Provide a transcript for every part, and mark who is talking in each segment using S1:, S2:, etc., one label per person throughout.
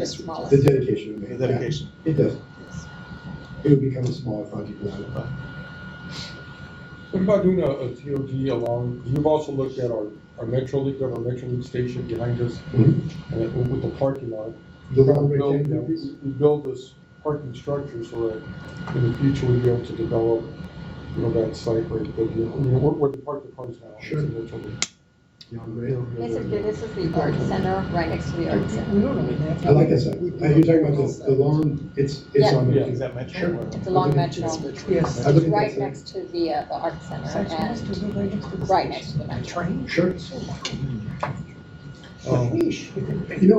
S1: Mr.
S2: The
S1: Wallace.
S2: dedication of
S3: the
S2: man.
S3: dedication.
S2: Yeah, It does. It would become a smaller project now.
S4: What about doing a, a TOD along, you've also looked at our, our Metro League, our Metro League station behind us,
S2: Mhm.
S4: and it- with the parking lot.
S2: The long
S4: We build-
S2: rectangular
S4: we-
S2: piece?
S4: We build this parking structure so that in the future we'd be able to develop, you know, that site where, the- you know, where, where the park the cars now.
S2: Sure. Yeah, great.
S1: Basically, this is the art center, right next to the art center.
S2: I like that side. Uh, You're talking about the, the lawn, it's, it's
S1: Yeah.
S2: on.
S4: Yeah,
S2: the
S3: Is that mentioned?
S2: Sure.
S3: Or-
S1: It's along Metro,
S5: Yes.
S2: I
S1: it's
S2: look at
S1: right
S2: that side.
S1: next to the, uh, the art center and right next to the Metro.
S2: Sure. Oh. You know,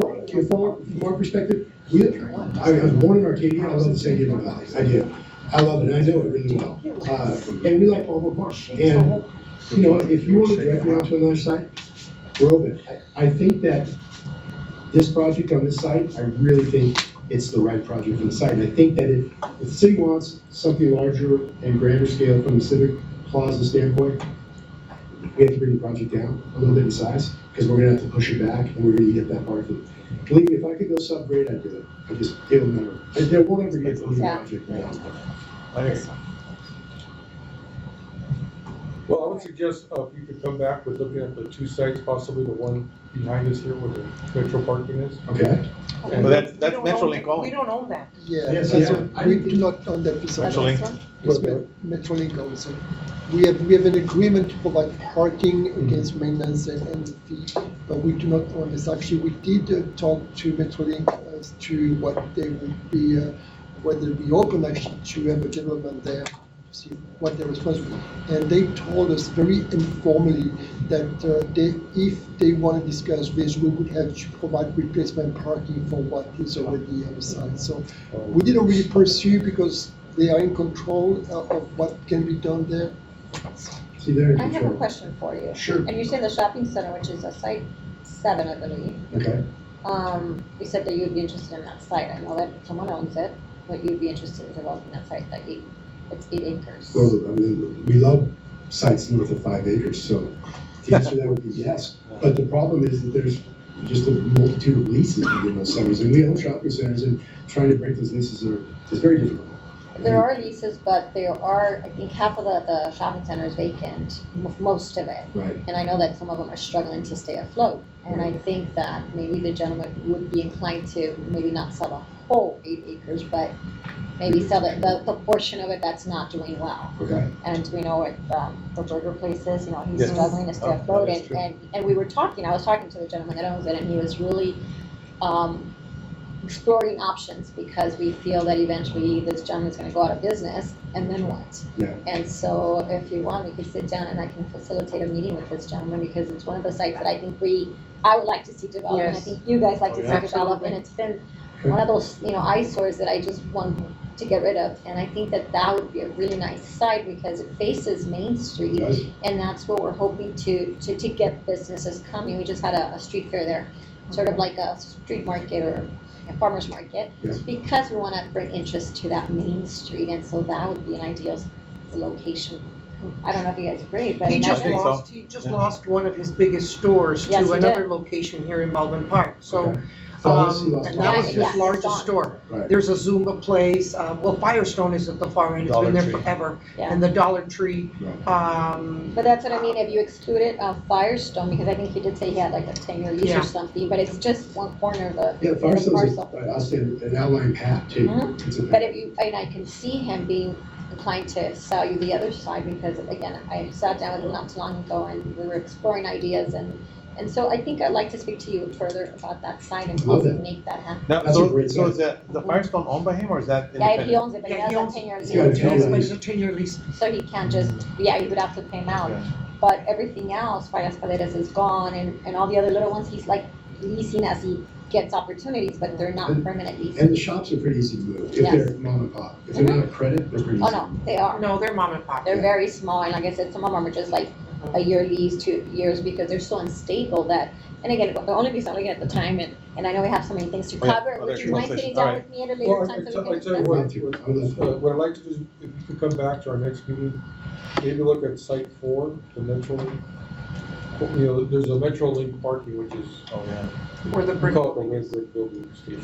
S2: from- from our perspective, we, I was born in Arcadia, I was in San Diego Valley, I do. I love it, I know it really well. Uh, And we like Palmer Park. And, you know, if you want to direct me out to another site, we're open. I- I think that this project on this site, I really think it's the right project for the site. And I think that if, if the city wants something larger and grander scale from the civic plaza standpoint, we have to bring the project down a little bit in size because we're gonna have to push it back and we're gonna get that parking. Believe me, if I could go subgrade, I'd do it. I just, it'll never, it it won't ever get to the
S1: Yeah.
S2: project. now.
S3: I agree.
S4: Well, I would suggest, uh, if you could come back with looking at the two sites, possibly the one behind us here where the Metro parking is.
S2: Okay?
S3: But
S4: And
S3: that's, that's Metrolink
S5: We
S3: only.
S5: don't own that.
S6: Yeah,
S2: Yes,
S6: that's
S2: yeah.
S6: what- we do not own that piece of
S1: That's
S6: land.
S3: Metrolink.
S1: this one?
S6: It's Met- Metrolink owns it. We have, we have an agreement to provide parking against maintenance and, and the fee, but we do not own this. Actually, we did uh, talk to Metrolink as to what they would be, uh, whether we open actually to have a gentleman there, to see what their response would be. And they told us very informally that uh, they, if they want to discuss this, we would have to provide replacement parking for what is already on the site. So
S4: um,
S6: we didn't really pursue because they are in control uh, of what can be done there.
S2: See, there.
S1: I have a question for you.
S2: Sure.
S1: And you said the shopping center, which is a site seven, I believe,
S2: Okay.
S1: um, you said that you'd be interested in that site. I know that someone owns it, but you'd be interested in developing that site, that eight, it's eight acres.
S2: Well, I mean, we love sites north of five acres, so the answer to that would be yes. But the problem is that there's just a multitude of leases within those centers, and we own shopping centers, and trying to break those leases are, is very difficult.
S1: There are leases, but there are, I think half of the, the shopping center is vacant, m- most of it.
S2: Right.
S1: And I know that some of them are struggling to stay afloat. And I think that maybe the gentleman would be inclined to maybe not sell the whole eight acres, but maybe sell the, the, the portion of it that's not doing well.
S2: Okay.
S1: And we know what, um, the burger place is, you know, he's
S3: Yes.
S1: struggling to stay
S3: Oh, that
S1: afloat
S3: is
S1: and,
S3: true.
S1: and, and we were talking, I was talking to the gentleman that owns it and he was really, um, exploring options because we feel that eventually this gentleman's gonna go out of business and then what?
S2: Yeah.
S1: And so if you want, we could sit down and I can facilitate a meeting with this gentleman because it's one of the sites that I think we, I would like to see develop and I
S5: Yes.
S1: think you guys like
S3: Oh,
S1: to see
S3: yeah.
S1: develop and it's been one of those, you know, eyesores that I just want to get rid of. And I think that that would be a really nice site because it faces Main Street.
S2: Guys?
S1: And that's what we're hoping to, to, to get businesses coming. We just had a, a street fair there, sort of like a street market or a farmer's market.
S2: Yeah.
S1: Because we wanna bring interest to that Main Street and so that would be an ideal s- location. I don't know if you guys agree, but.
S5: He just
S3: I think so.
S5: lost, he just
S3: Yeah.
S5: lost one of his biggest stores
S1: Yes,
S5: to
S1: he did.
S5: another location here in Baldwin Park, so.
S2: Okay. Obviously
S5: Um,
S2: lost
S5: and that was
S1: one. Yeah,
S5: his
S1: it's gone.
S5: largest store.
S2: Right.
S5: There's a Zumba place, uh, well, Firestone is at the far end, it's
S3: Dollar
S5: been there
S3: Tree.
S5: forever.
S1: Yeah.
S5: And the Dollar Tree, um,
S1: But that's what I mean, if you excluded uh, Firestone, because I think he did say he had like a ten-year lease
S5: Yeah.
S1: or something, but it's just one corner of the.
S2: Yeah,
S1: the
S2: Firestone's,
S1: parcel.
S2: I'll say, an outlying path too.
S5: Mm-hmm.
S1: Mhm.
S2: It's a-
S1: But if you, and I can see him being inclined to sell you the other side, because again, I sat down with him not too long ago and we were exploring ideas and, and so I think I'd like to speak to you further about that side and
S2: Love
S1: possibly
S2: that.
S1: make that happen.
S3: Now,
S2: That's a
S3: so,
S2: great
S3: so
S2: site.
S3: is that, the Firestone owned by him or is that
S1: Yeah, if he
S3: independent?
S1: owns it, but he
S5: Yeah,
S1: has
S5: he
S1: a
S5: owns-
S1: ten-year
S2: He's got a
S1: lease,
S2: ten-
S5: it's but it's a ten-year lease.
S1: so he can't just, yeah, you would have to pay him out.
S3: Yeah.
S1: But everything else, Fallas Paredes is gone and, and all the other little ones, he's like leasing as he gets opportunities, but they're not
S2: And-
S1: permanent leases.
S2: And the shops are pretty easy to move, if
S1: Yes.
S2: they're mom and pop. If they're not a credit, they're pretty easy.
S1: Oh, no, they are.
S5: No, they're mom and pop.
S1: They're
S2: Yeah.
S1: very small, and like I said, some of them are just like a year lease, two years, because they're so unstable that, and again, the only reason I'm looking at the time, and, and I know we have so many things to
S3: Oh, yeah.
S1: cover,
S3: Oh,
S1: would
S3: there's
S1: you
S3: one
S1: mind sitting
S3: session.
S1: down
S3: Alright.
S1: with me at a
S4: Well,
S1: later
S4: I
S1: time so
S4: tell
S1: we
S4: I
S1: can
S4: tell you
S1: discuss?
S4: what,
S2: Thank you.
S4: what, uh, what I'd like to do is, if you could come back to our next meeting, maybe look at site four, the Metro Link. You know, there's a Metro Link parking, which is,
S3: Oh, yeah.
S5: Or the
S4: we
S5: brick.
S4: call it the Red Brick Building, Steve.